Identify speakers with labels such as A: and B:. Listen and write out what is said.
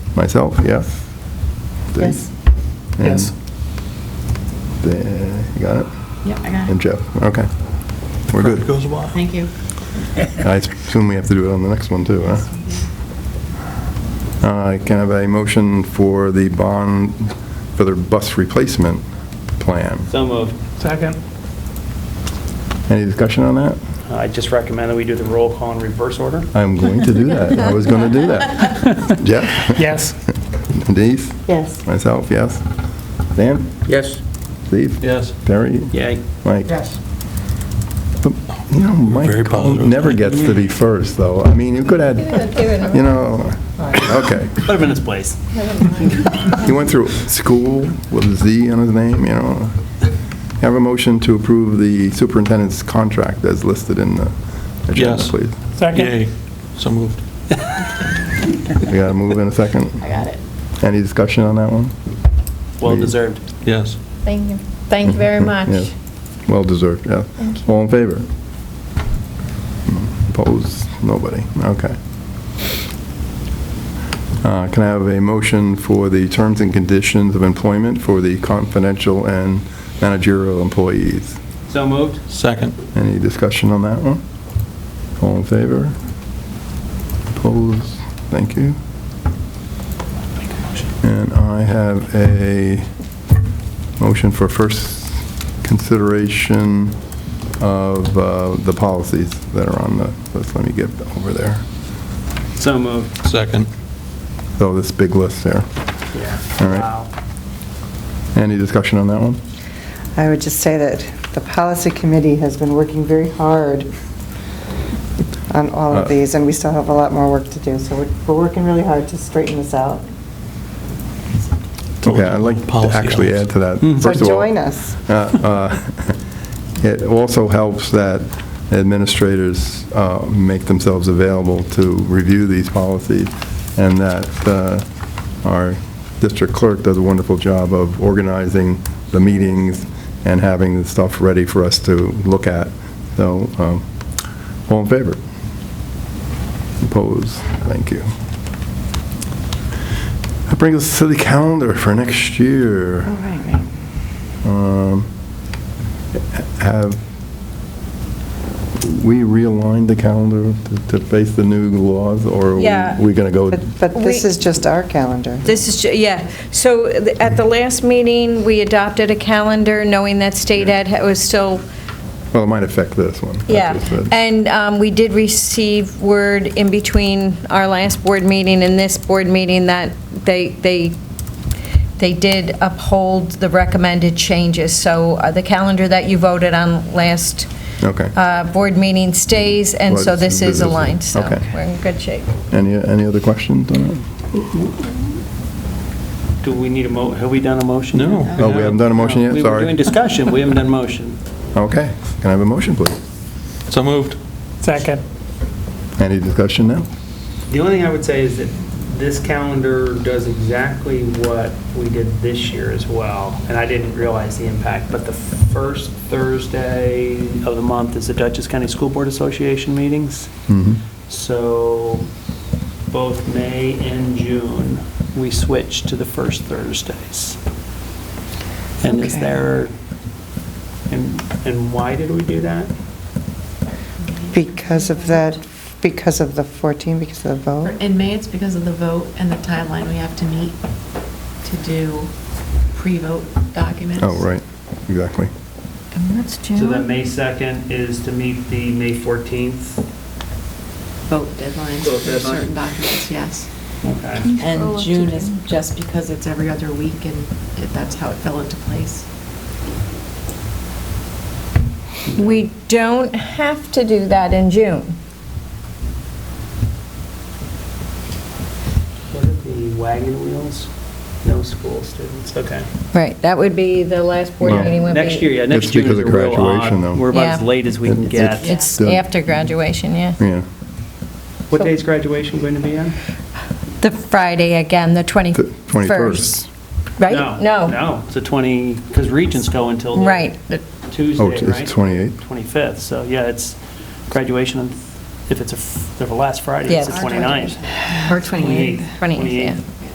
A: Myself, yeah.
B: Yes.
A: And
C: Yes.
A: the- You got it?
B: Yep, I got
A: And
B: it.
A: Jeff, okay. We're
C: It
A: good.
C: Goes by.
B: Thank you.
A: I assume we have to do it on the next one, too, huh? Uh, Can I have a motion for the bond, for the bus replacement plan?
D: So moved.
C: Second.
A: Any discussion on that?
D: Uh, I just recommend that we do the roll call in reverse order.
A: I'm going to do that. I was going to do that. Jeff?
C: Yes.
A: Denise?
B: Yes.
A: Myself, yes. Dan?
D: Yes.
A: Steve?
C: Yes.
A: Terry?
D: Yay.
A: Mike?
C: Yes.
A: But, You know,
E: Very
A: Mike
E: positive.
A: never gets to be first, though. I mean, you could add, you know, okay.
D: Put him in his place.
A: He went through school with a Z on his name, you know. Have a motion to approve the superintendent's contract as listed in the agenda,
E: Yes.
A: please.
C: Second.
E: Yay. So moved.
A: We got to move in a second.
B: I got it.
A: Any discussion on that one?
D: Well deserved.
E: Yes.
F: Thank you. Thank you very much.
A: Yes. Well deserved, yeah.
F: Thank you.
A: All in favor? Opposed? Nobody. Okay. Uh, Can I have a motion for the terms and conditions of employment for the confidential and managerial employees?
D: So moved.
E: Second.
A: Any discussion on that one? All in favor? Opposed? Thank you. And I have a motion for first consideration of uh, the policies that are on the list. Let me get over there.
D: So moved.
E: Second.
A: So Oh, this big list there.
D: Yeah.
A: All right.
D: Wow.
A: Any discussion on that one?
G: I would just say that the policy committee has been working very hard on all
A: Uh,
G: of these, and we still have a lot more work to do, so we're, we're working really hard to straighten this out.
A: Okay, I'd like to
E: Policy
A: actually add
E: elements.
A: to that.
G: Mm. So
A: First of all-
G: join us.
A: Uh, uh, It also helps that administrators uh, make themselves available to review these policies, and that uh, our district clerk does a wonderful job of organizing the meetings and having the stuff ready for us to look at. So, um, all in favor? Opposed? Thank you. That brings us to the calendar for next year.
G: All right, right.
A: Um, Have we realigned the calendar to- to face the new laws, or are
H: Yeah.
A: we going to go?
G: But, but this
H: We-
G: is just our calendar.
H: This is, ju- yeah, so th- at the last meeting, we adopted a calendar, knowing that state ed ha- was still,
A: Well, it might affect this one. I
H: yeah.
A: just said.
H: And um, we did receive word in between our last board meeting and this board meeting that they, they, they did uphold the recommended changes. So uh, the calendar that you voted on last
A: Okay. Mm-hmm.
H: uh, board meeting stays, and
A: Well,
H: so
A: it's
H: this is
A: business.
H: aligned, so
A: Okay.
H: we're in good shape.
A: Any, any other questions on it?
D: Do we need a mo, have we done a motion? yet?
E: No.
A: Oh, we haven't done a motion
D: We
A: yet,
D: were
A: sorry.
D: doing discussion, we haven't done motion.
A: Okay, can I have a motion, please?
E: So moved.
C: Second.
A: Any discussion now?
I: The only thing I would say is that this calendar does exactly what we did this year as well, and I didn't realize the impact, but the first
D: Thursday of the month is the Dutchess County School Board Association meetings.
A: Mhm.
D: So both May and June, we switched to the first Thursdays. And is
G: Okay.
D: there, and, and why did we do that?
G: Because of that, because of the 14, because of the vote?
B: In May, it's because of the vote and the timeline we have to meet to do pre-vote documents.
A: Oh, right, exactly.
H: And that's
D: So
H: June.
D: that May 2nd is to meet the May 14th?
B: Vote deadlines
D: Vote
B: for
D: deadline.
B: certain documents, yes.
G: Oh,
D: Okay.
B: And June is just because it's every other week and it- that's how it fell into place.
H: We don't have to do that in June.
D: What are the wagon wheels? No school students, okay.
H: Right, that would be the last board
A: Well,
H: meeting would be.
D: Next year, yeah,
A: It's
D: next June
A: because
D: is a
A: of
D: real
A: graduation, though.
D: odd. We're about as
H: Yeah.
D: late as we can
A: It's-
D: get.
H: It's
A: Yeah.
H: after graduation, yeah.
A: Yeah.
D: What day's graduation going to be on?
H: The Friday again, the
A: 21st.
H: 21st. Right?
D: No, it's the 20, because regents go until the
H: Right.
D: the Tuesday,
A: Oh,
D: right?
A: it's 28?
D: 25th, so yeah, it's graduation, on- if it's a f- the last Friday,
H: Yeah,
D: it's the
H: it's
B: Our
D: 29th.
B: graduation. Or 28th.
H: 28th, yeah.